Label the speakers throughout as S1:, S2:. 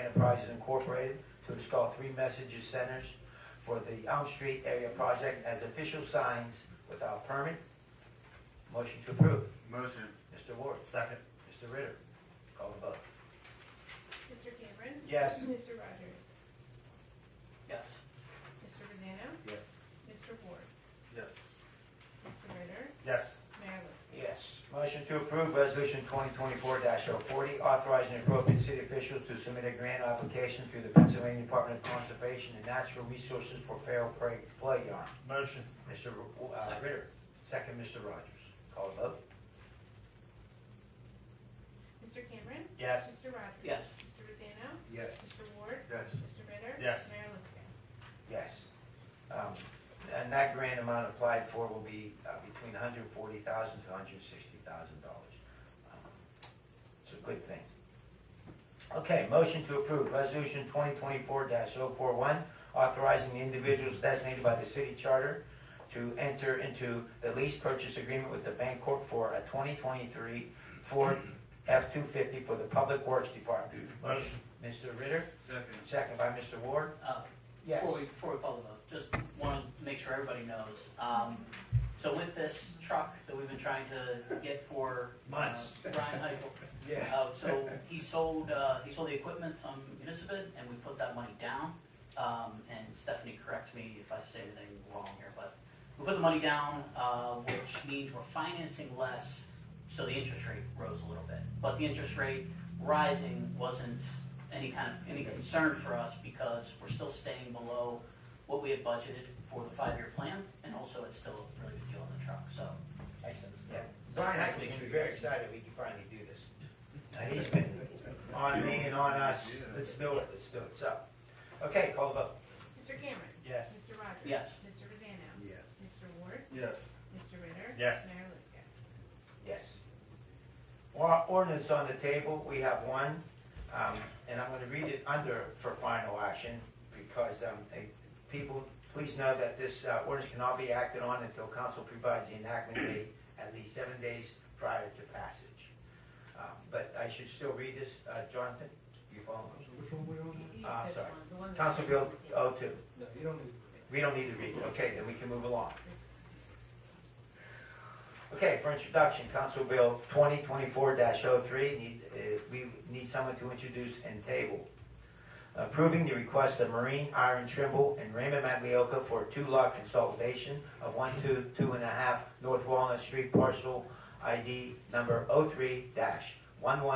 S1: Enterprises Incorporated to install three message centers for the Elm Street area project as official signs without permit. Motion to approve.
S2: Motion.
S1: Mr. Ward?
S2: Second.
S1: Mr. Ritter? Call the vote.
S3: Mr. Cameron.
S1: Yes.
S3: Mr. Rogers.
S1: Yes.
S3: Mr. Vazano.
S2: Yes.
S3: Mr. Ward.
S2: Yes.
S3: Mr. Ritter.
S2: Yes.
S3: Mayor Liscan.
S1: Yes. Motion to approve Resolution 2024-040, authorizing appropriate city officials to submit a grant application through the Pennsylvania Department of Conservation and Natural Resources for feral prey Playground.
S2: Motion.
S1: Mr. Ru- uh, Ritter, second Mr. Rogers. Call the vote.
S3: Mr. Cameron.
S1: Yes.
S3: Mr. Rogers.
S4: Yes.
S3: Mr. Vazano.
S2: Yes.
S3: Mr. Ward.
S2: Yes.
S3: Mr. Ritter.
S2: Yes.
S3: Mayor Liscan.
S1: Yes. Um, And that grant amount applied for will be uh, between $140,000 to $160,000. Um, It's a good thing. Okay, motion to approve Resolution 2024-041, authorizing the individuals designated by the city charter to enter into the lease purchase agreement with the Bancorp for a 2023 Ford F-250 for the Public Works Department.
S2: Motion.
S1: Mr. Ritter,
S2: Second.
S1: second by Mr. Ward.
S4: Uh,
S1: Yes.
S4: Before we, before we call the vote, just want to make sure everybody knows. Um, So with this truck that we've been trying to get for. uh,
S2: Months.
S4: Brian Heichel. Uh, So he sold, uh, he sold the equipment on Municipal and we put that money down. Um, And Stephanie, correct me if I say anything wrong here, but we put the money down, uh, which means we're financing less, so the interest rate rose a little bit. But the interest rate rising wasn't any kind of, any concern for us because we're still staying below what we had budgeted for the five-year plan, and also it's still a really good deal on the truck, so. Excellent.
S1: Yeah, Brian Hackman should be very excited we can finally do this. And he's been on me and on us, let's do it, let's do it, so. Okay, call the vote.
S3: Mr. Cameron.
S1: Yes.
S3: Mr. Rogers.
S4: Yes.
S3: Mr. Vazano.
S2: Yes.
S3: Mr. Ward.
S2: Yes.
S3: Mr. Ritter.
S2: Yes.
S3: Mayor Liscan.
S1: Yes. Or- Ordinance on the table, we have one, um, and I'm gonna read it under for final action, because, um, eh, people, please know that this uh, ordinance cannot be acted on until council provides the enactment date at least seven days prior to passage. Um, But I should still read this, uh, Jonathan, you follow me?
S5: Which one we on?
S3: You
S1: Ah,
S3: said
S1: sorry.
S3: one, the one that-
S1: Council Bill 02.
S5: No, you don't need.
S1: We don't need to read it. Okay, then we can move along. Okay, for introduction, Council Bill 2024-03, need, uh, we need someone to introduce and table. Approving the request of Marine Iron Trimble and Raymond Maglioka for a two-lot consolidation of one, two, two and a half North Walnut Street parcel ID number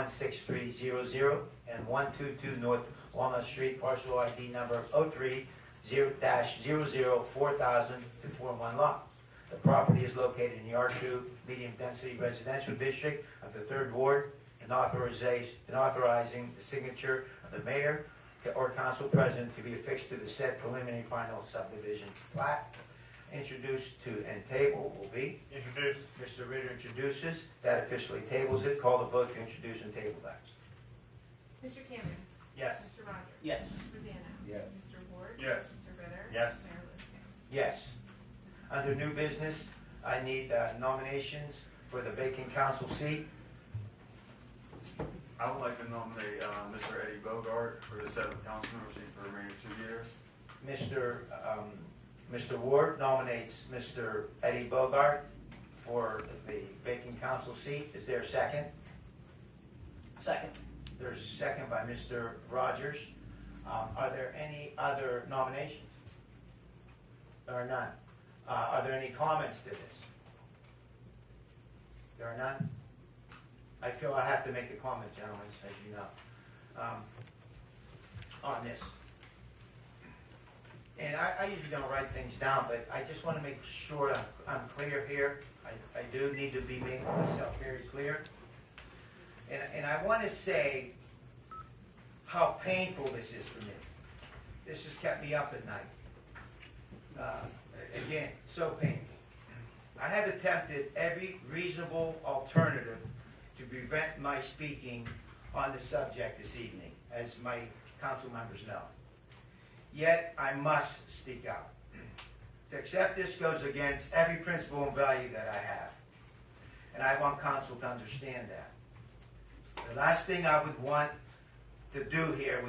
S1: 03-116300 and 122 North Walnut Street parcel ID number 03 zero dash zero zero four thousand to form one lot. The property is located in the R two medium density residential district of the third ward and authorization, and authorizing the signature of the mayor or council president to be affixed to the said preliminary final subdivision plat. Introduced to and table will be,
S2: Introduce.
S1: Mr. Ritter introduces, that officially tables it, call the vote to introduce and table that.
S3: Mr. Cameron.
S1: Yes.
S3: Mr. Rogers.
S4: Yes,
S3: Mr. Vazano.
S5: Yes.
S3: Mr. Ward.
S2: Yes.
S3: Mr. Ritter.
S2: Yes.
S3: Mayor Liscan.
S1: Yes. Under new business, I need uh, nominations for the vacant council seat.
S2: I would like to nominate, uh, Mr. Eddie Bogart for the seventh council member seat for the remaining two years.
S1: Mr. um, Mr. Ward nominates Mr. Eddie Bogart for the vacant council seat. Is there a second?
S4: second.
S1: There's a second by Mr. Rogers. Um, Are there any other nominations? There are none. Uh, Are there any comments to this? There are none? I feel I have to make a comment, gentlemen, as you know, um, on this. And I I usually don't write things down, but I just want to make sure I'm- I'm clear here. I I do need to be making myself very clear. And, and I want to say how painful this is for me. This has kept me up at night. Uh, again, so painful. I have attempted every reasonable alternative to prevent my speaking on the subject this evening, as my council members know. Yet I must speak out. To accept this goes against every principle and value that I have. And I want council to understand that. The last thing I would want to do here